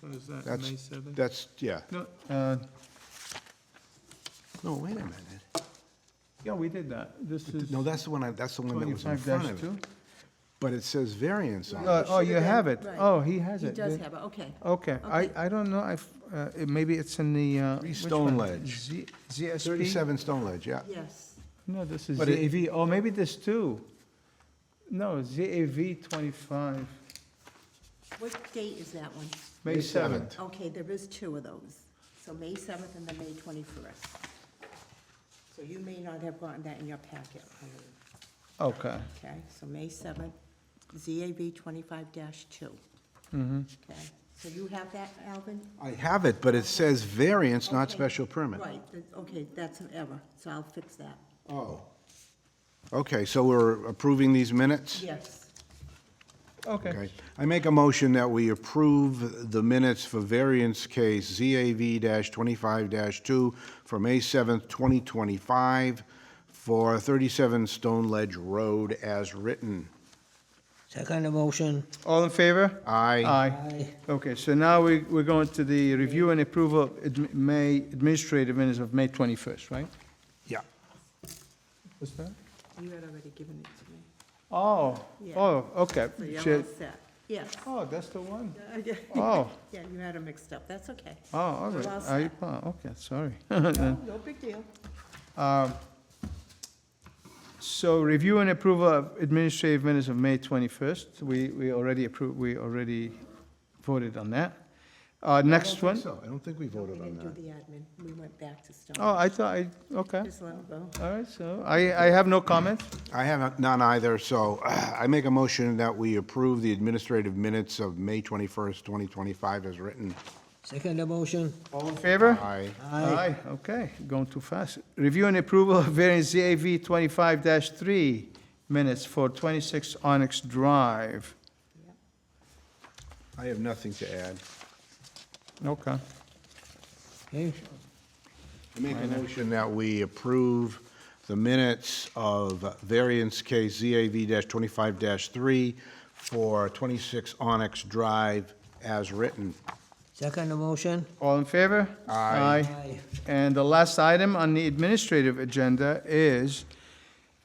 What is that, That's- May 7th? That's, yeah. No, Uh, No, wait a minute. yeah, we did that. This is No, that's the one, I- that's the one that was in twenty-five front of it. two? But it says variance on it. Oh, you Should've have been- it. right. Oh, he has He it. Oh. does The- have it, okay. Okay, I, Okay. I don't know, I've, uh, it- maybe it's in the, uh. Three which Stone one? Ledge. Z- ZSP? 37 Stone Ledge, yeah. Yes. No, this is But it- ZAV, oh, maybe this too. No, ZAV twenty-five, What date is that one? May May seventh. Okay, there is two of those. So May 7th and then May 21st. So you may not have gotten that in your packet, Eileen, Okay, okay? So May 7th, ZAB 25-2, mm-hmm. okay? So you have that, Alvin? I have it, but it says variance, not Okay. special permit. Right, th- okay, that's an error, so I'll fix that. Oh. Okay, so we're approving these minutes? Yes. Okay, Okay. I make a motion that we approve the minutes for variance case ZAV-25-2 for May 7th, 2025, for 37 Stone Ledge Road as written. Second motion, all in favor? Aye. Aye. Okay, so now we, we're going to the review and approval of admi- May, administrative minutes of May twenty-first, right? Yeah. What's that? You had already given it to me. Oh, Yeah. oh, okay. So you're all Shit. set, yes. Oh, that's the one. Yeah, Oh, you had them mixed up, that's okay. oh, all right. Well I- said. oh, Okay, sorry. Oh, No big deal. Um, So review and approval of administrative minutes of May 21st. We, we already approved, we already voted on that. Uh, Next one? I don't think we voted We on didn't that. do the admin, we went back to Stone. Oh, I thought, I, okay, Just let 'em go. all right, so I, I have no comment. I have none either, so uh, I make a motion that we approve the administrative minutes of May 21st, 2025 as written. second motion, All in favor? Aye. Aye, okay, going too fast. Review and approval of variance ZAV 25-3 minutes for 26 Onyx Drive. I have nothing to add. Okay. okay? I make a motion that we approve the minutes of variance case ZAV-25-3 for 26 Onyx Drive as written. Second motion, All in favor? Aye. Aye. And the last item on the administrative agenda is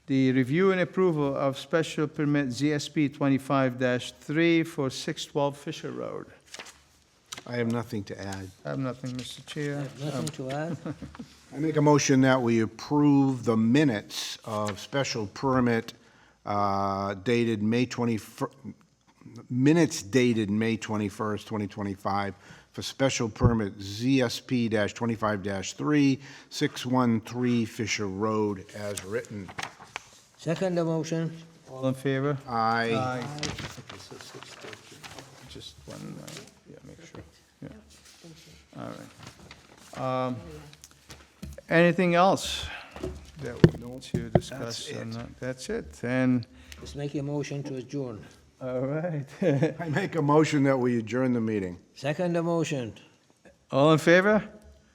the review and approval of special permit ZSP 25-3 for 612 Fisher Road. I have nothing to add. I have nothing, Mr. Chair. nothing to add, I make a motion that we approve the minutes of special permit uh, dated May 21st, minutes dated May 21st, 2025, for special permit ZSP-25-3, 613 Fisher Road, as written. second motion, All in favor? Aye. Just one, uh, yeah, make sure, yeah. All right. Um, Anything else that we need to discuss? That's on it. that? That's it, and, let's make a motion to adjourn. all right. I make a motion that we adjourn the meeting. Second motion. All in favor?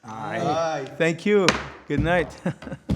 Aye. Thank you. Good night.